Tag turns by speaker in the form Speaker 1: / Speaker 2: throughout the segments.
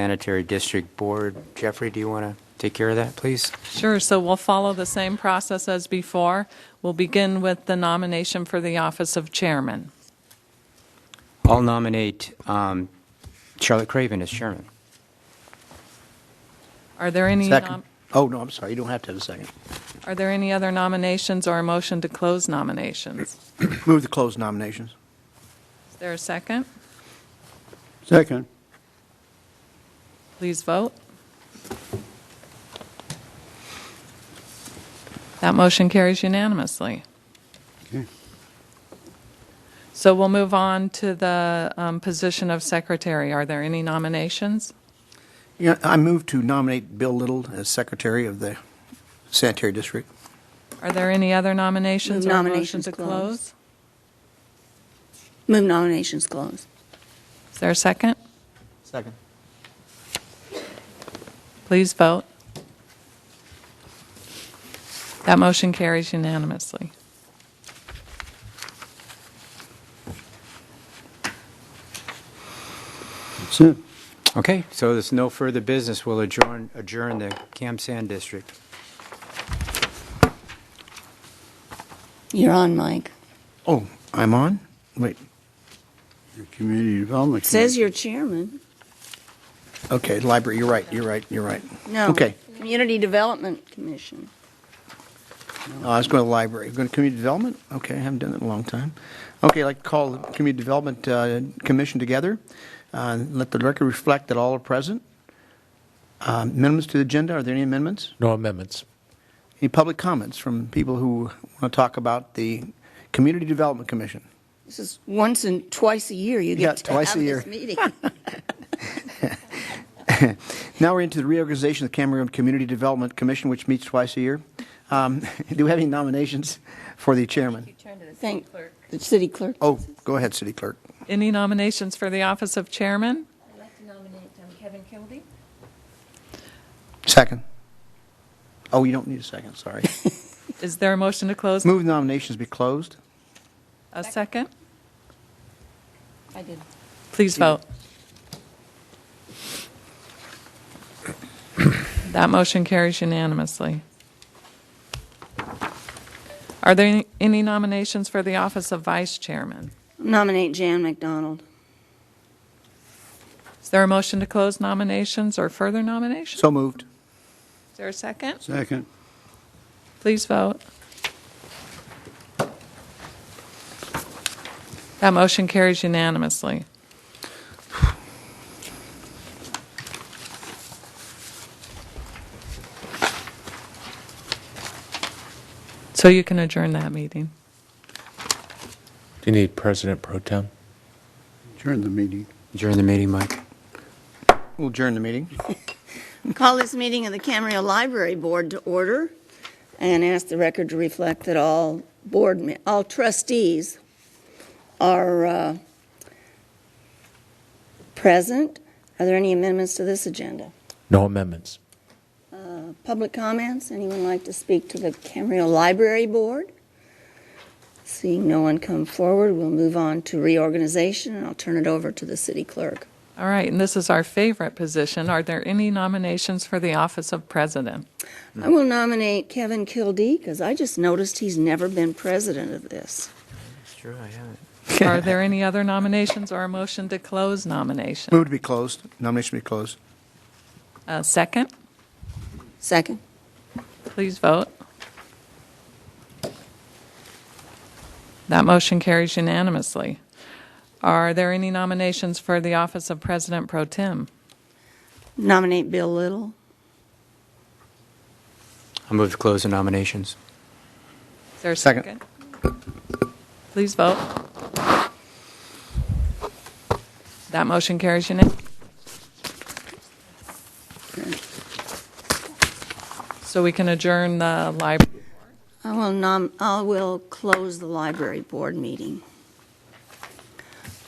Speaker 1: Sanitary District Board. Jeffrey, do you want to take care of that, please?
Speaker 2: Sure, so we'll follow the same process as before. We'll begin with the nomination for the office of chairman.
Speaker 1: I'll nominate um, Charlotte Craven as chairman.
Speaker 2: Are there any,
Speaker 3: Second.
Speaker 2: nom-
Speaker 3: Oh, no, I'm sorry, you don't have to have a second.
Speaker 2: are there any other nominations or a motion to close nominations?
Speaker 3: Move to close nominations.
Speaker 2: Is there a second?
Speaker 4: Second.
Speaker 2: Please vote. That motion carries unanimously.
Speaker 4: Okay.
Speaker 2: So we'll move on to the um, position of secretary. Are there any nominations?
Speaker 3: Yeah, I move to nominate Bill Little as Secretary of the Sanitary District.
Speaker 2: Are there any other nominations or a motion
Speaker 5: Nominations
Speaker 2: to
Speaker 5: closed.
Speaker 2: close?
Speaker 5: Move nominations close.
Speaker 2: Is there a second?
Speaker 3: Second.
Speaker 2: Please vote. That motion carries unanimously.
Speaker 4: That's it.
Speaker 1: Okay, so there's no further business. We'll adjourn, adjourn the Cam San District.
Speaker 5: You're on, Mike.
Speaker 3: Oh, I'm on? Wait,
Speaker 4: Your Community Development.
Speaker 5: Says
Speaker 4: Committee.
Speaker 5: you're chairman.
Speaker 3: okay, library, you're right, you're right, you're right.
Speaker 5: No.
Speaker 3: Okay,
Speaker 5: Community Development Commission.
Speaker 3: No, I was going Uh, to library, going to community development? Okay, I haven't done that in a long time. Okay, I'd like to call the Community Development uh, Commission together. Uh, Let the record reflect that all are present. Uh, Amendments to the agenda, are there any amendments?
Speaker 6: No amendments.
Speaker 3: Any public comments from people who want to talk about the Community Development Commission?
Speaker 5: This is once and twice a year you
Speaker 3: Yeah,
Speaker 5: get to
Speaker 3: twice
Speaker 5: have
Speaker 3: a year.
Speaker 5: this meeting.
Speaker 3: Now we're into the reorganization of the Cameron Community Development Commission, which meets twice a year. Um, Do we have any nominations for the chairman?
Speaker 5: Thank the city clerk.
Speaker 3: Oh, go ahead, city clerk.
Speaker 2: Any nominations for the office of chairman?
Speaker 7: I'd like to nominate um, Kevin Kilby.
Speaker 3: Second. Oh, you don't need a second, sorry.
Speaker 2: Is there a motion to close?
Speaker 3: Move nominations be closed.
Speaker 2: A second?
Speaker 7: I did.
Speaker 2: Please vote. That motion carries unanimously. Are there any- any nominations for the office of vice chairman?
Speaker 5: Nominate Jan McDonald.
Speaker 2: Is there a motion to close nominations or further nominations?
Speaker 3: So moved.
Speaker 2: Is there a second?
Speaker 4: Second.
Speaker 2: Please vote. That motion carries unanimously. So you can adjourn that meeting.
Speaker 6: Do you need President Pro Tem?
Speaker 4: Adjourn the meeting.
Speaker 1: Adjourn the meeting, Mike.
Speaker 3: We'll adjourn the meeting.
Speaker 5: Call this meeting of the Camarillo Library Board to order and ask the record to reflect that all board, me- all trustees are uh, present. Are there any amendments to this agenda?
Speaker 6: No amendments.
Speaker 5: Public comments? Anyone like to speak to the Camarillo Library Board? Seeing no one come forward, we'll move on to reorganization, and I'll turn it over to the city clerk.
Speaker 2: All right, and this is our favorite position. Are there any nominations for the office of president?
Speaker 5: I will nominate Kevin Kildee, because I just noticed he's never been president of this.
Speaker 1: It's true, I haven't.
Speaker 2: Are there any other nominations or a motion to close nomination?
Speaker 3: Move to be closed. Nomination be closed.
Speaker 2: A Uh, second?
Speaker 5: Second?
Speaker 2: Please vote. That motion carries unanimously. Are there any nominations for the office of President Pro Tem?
Speaker 5: Nominate Bill Little.
Speaker 1: I'll move to close the nominations.
Speaker 2: Is there a
Speaker 3: Second.
Speaker 2: second? Please vote. That motion carries unanimously. So we can adjourn the library.
Speaker 5: I will nom, I will close the library board meeting.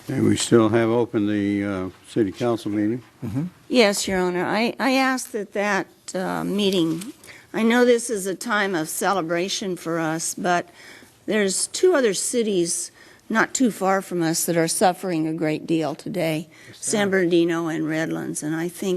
Speaker 4: And we still have open the uh, city council meeting.
Speaker 3: Mm-hmm.
Speaker 5: Yes, Your Honor, I, I ask that that uh, meeting, I know this is a time of celebration for us, but there's two other cities not too far from us that are suffering a great deal today, San Bernardino and Redlands, and I think